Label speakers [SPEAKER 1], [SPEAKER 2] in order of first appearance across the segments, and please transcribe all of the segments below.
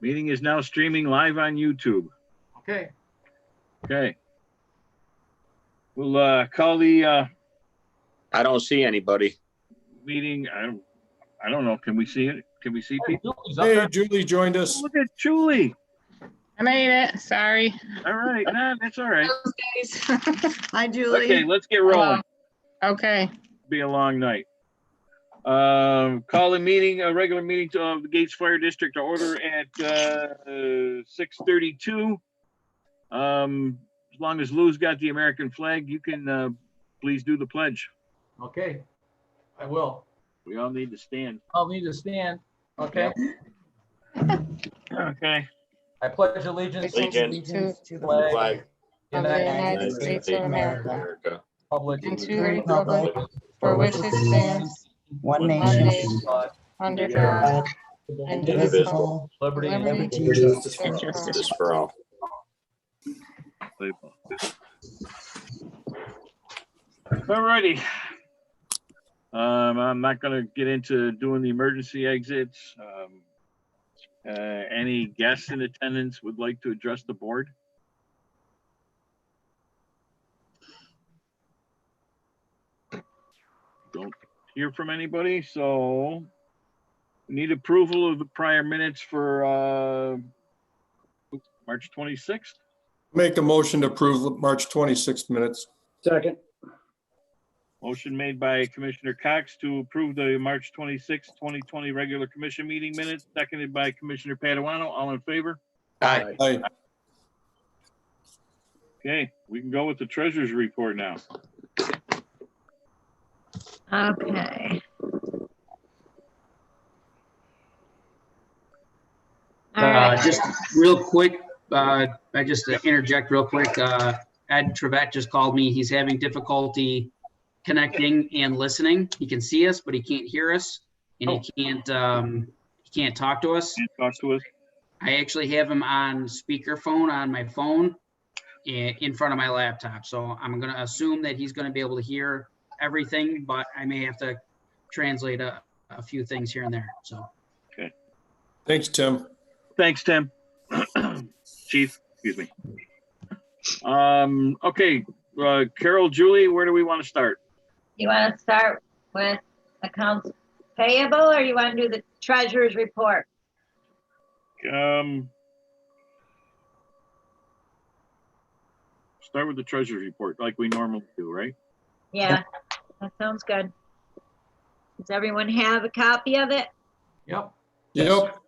[SPEAKER 1] Meeting is now streaming live on YouTube.
[SPEAKER 2] Okay,
[SPEAKER 1] Okay. We'll uh, call the uh,
[SPEAKER 3] I don't see anybody.
[SPEAKER 1] meeting, I I don't know, can we see it? Can we see people?
[SPEAKER 2] Julie's up
[SPEAKER 4] Hey,
[SPEAKER 2] there.
[SPEAKER 4] Julie joined us.
[SPEAKER 1] Oh, Look at Julie.
[SPEAKER 5] I made it. Sorry.
[SPEAKER 1] All right, nah, that's all right.
[SPEAKER 5] Hi,
[SPEAKER 1] Okay, let's get rolling.
[SPEAKER 5] Okay,
[SPEAKER 1] Be a long night. Um, Call a meeting, a regular meeting to- of the Gates Fire District to order at uh, 6:32. Um, As long as Lou's got the American flag, you can uh, please do the pledge.
[SPEAKER 2] Okay, I will.
[SPEAKER 1] We all need to stand.
[SPEAKER 2] I'll need to stand. Okay,
[SPEAKER 1] Okay.
[SPEAKER 2] I pledge allegiance to
[SPEAKER 3] Allegiance.
[SPEAKER 5] allegiance
[SPEAKER 6] to
[SPEAKER 2] the flag
[SPEAKER 3] Flag
[SPEAKER 2] of the United
[SPEAKER 5] United States of America,
[SPEAKER 3] America.
[SPEAKER 2] Republic
[SPEAKER 5] and to the
[SPEAKER 2] of
[SPEAKER 5] republic for which it stands,
[SPEAKER 6] One
[SPEAKER 5] One
[SPEAKER 6] nation,
[SPEAKER 5] nation,
[SPEAKER 2] God,
[SPEAKER 5] under God, indivisible,
[SPEAKER 6] indivisible,
[SPEAKER 2] Liberty and
[SPEAKER 5] liberty,
[SPEAKER 6] liberty,
[SPEAKER 5] and
[SPEAKER 6] and
[SPEAKER 5] justice.
[SPEAKER 3] Justice for all.
[SPEAKER 1] Unbelievable. Alrighty. Um, I'm not gonna get into doing the emergency exits. Um, uh, any guests in attendance would like to address the board? Don't hear from anybody, so we need approval of the prior minutes for, uh, March twenty-sixth.
[SPEAKER 4] Make a motion to approve March 26th minutes.
[SPEAKER 7] Second,
[SPEAKER 1] Motion made by Commissioner Cox to approve the March 26, 2020 regular commission meeting minutes, seconded by Commissioner Paduano. All in favor?
[SPEAKER 3] Aye.
[SPEAKER 4] Aye.
[SPEAKER 1] Okay, we can go with the treasurer's report now.
[SPEAKER 8] Okay. All
[SPEAKER 7] uh,
[SPEAKER 8] right,
[SPEAKER 7] just real quick, uh, I just to interject real quick, uh, Ed Trevette just called me. He's having difficulty connecting and listening. He can see us, but he can't hear us and
[SPEAKER 1] Oh.
[SPEAKER 7] he can't, um, he can't talk to us.
[SPEAKER 1] Can't talk to us.
[SPEAKER 7] I actually have him on speakerphone on my phone i- in front of my laptop, so I'm gonna assume that he's gonna be able to hear everything, but I may have to translate a, a few things here and there, so.
[SPEAKER 4] Thanks, Tim.
[SPEAKER 1] Thanks, Tim. Chief, excuse me. Um, okay, uh, Carol, Julie, where do we want to start?
[SPEAKER 8] you want to start with accounts payable or you want to do the treasurer's report?
[SPEAKER 1] Um, start with the treasurer's report like we normally do, right?
[SPEAKER 8] Yeah, that sounds good. Does everyone have a copy of it?
[SPEAKER 2] Yep,
[SPEAKER 4] Yep,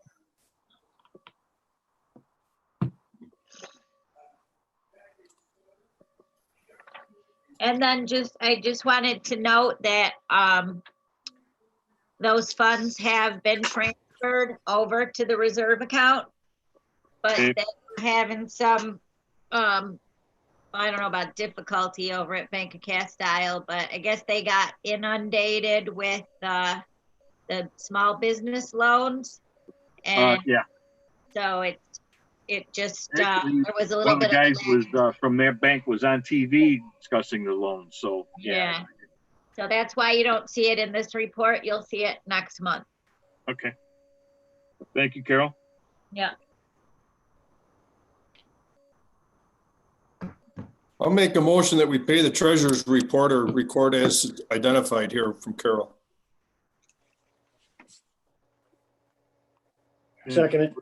[SPEAKER 8] And then just, I just wanted to note that, um, those funds have been transferred over to the reserve account. But
[SPEAKER 1] Okay.
[SPEAKER 8] they were having some, um, I don't know about difficulty over at Bank of Castile, but I guess they got inundated with, uh, the small business loans.
[SPEAKER 1] Uh,
[SPEAKER 8] And
[SPEAKER 1] yeah,
[SPEAKER 8] so it, it just, uh,
[SPEAKER 1] Actually,
[SPEAKER 8] there was a
[SPEAKER 1] One
[SPEAKER 8] little
[SPEAKER 1] of the
[SPEAKER 8] bit
[SPEAKER 1] guys
[SPEAKER 8] of.
[SPEAKER 1] was, uh, from their bank was on TV discussing the loan, so, yeah.
[SPEAKER 8] Yeah. So that's why you don't see it in this report. You'll see it next month.
[SPEAKER 1] Okay. Thank you, Carol.
[SPEAKER 8] Yeah.
[SPEAKER 4] I'll make a motion that we pay the treasurer's report or record as identified here from Carol.
[SPEAKER 6] Second,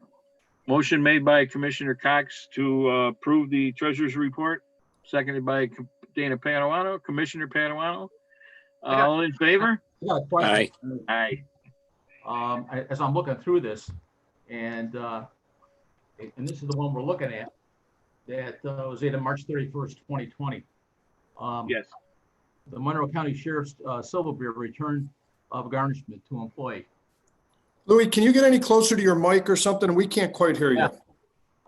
[SPEAKER 1] Motion made by Commissioner Cox to uh, approve the treasurer's report, seconded by Com- Dana Paduano, Commissioner Paduano. All in favor?
[SPEAKER 2] I got a question.
[SPEAKER 3] Aye.
[SPEAKER 1] Aye.
[SPEAKER 2] um, I- as I'm looking through this, and, uh, and this is the one we're looking at, that uh, was dated March thirty-first, twenty twenty. Um,
[SPEAKER 1] Yes.
[SPEAKER 2] The Monroe County Sheriff's uh, Silver Beer return of garnishment to employee.
[SPEAKER 4] Louis, can you get any closer to your mic or something? We can't quite hear you.
[SPEAKER 2] Yeah.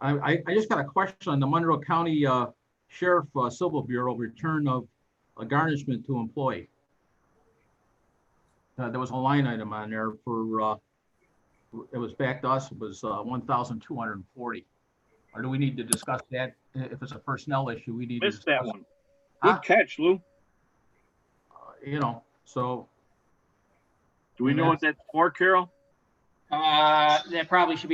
[SPEAKER 2] I, I, I just got a question on the Monroe County uh, Sheriff uh, Civil Bureau return of a garnishment to employee. Uh, There was a line item on there for, uh, it was back to us, it was uh, 1,240. Or do we need to discuss that? I- If it's a personnel issue, we need to.
[SPEAKER 1] Missed that
[SPEAKER 2] discuss-
[SPEAKER 1] one. Good catch, Lou.
[SPEAKER 2] uh, You know, so,
[SPEAKER 1] Do we know what that's for, Carol?
[SPEAKER 7] Uh, that probably should be